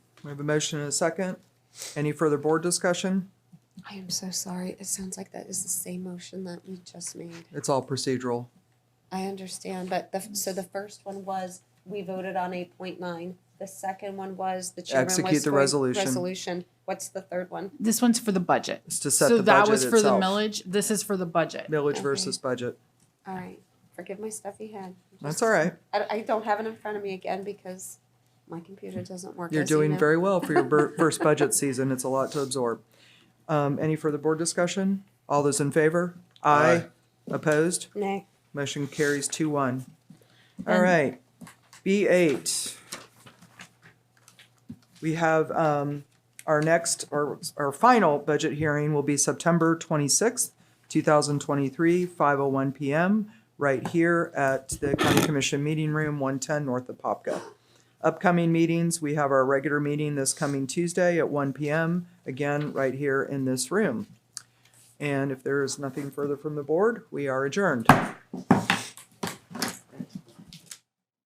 We have a motion and a second. Any further board discussion? I am so sorry. It sounds like that is the same motion that we just made. It's all procedural. I understand, but the, so the first one was, we voted on eight point nine. The second one was, the chairman was. Execute the for resolution. Resolution. What's the third one? This one's for the budget. It's to set so the that budget was for itself. the millage. This is for the budget. Millage Okay. versus budget. All right, forgive my stuffy head. That's all right. I, I don't have it in front of me again because my computer doesn't work. You're as you doing know. very well for your bur- first budget season. It's a lot to absorb. Um, any further board discussion? All those in favor? Aye. Opposed? Nay, Motion carries two one. All And- right, B eight. We have, um, our next, or our final budget hearing will be September twenty-sixth, two thousand twenty-three, five oh one PM, right here at the County Commission Meeting Room, one ten north of Popka. Upcoming meetings, we have our regular meeting this coming Tuesday at one PM, again, right here in this room. And if there is nothing further from the board, we are adjourned.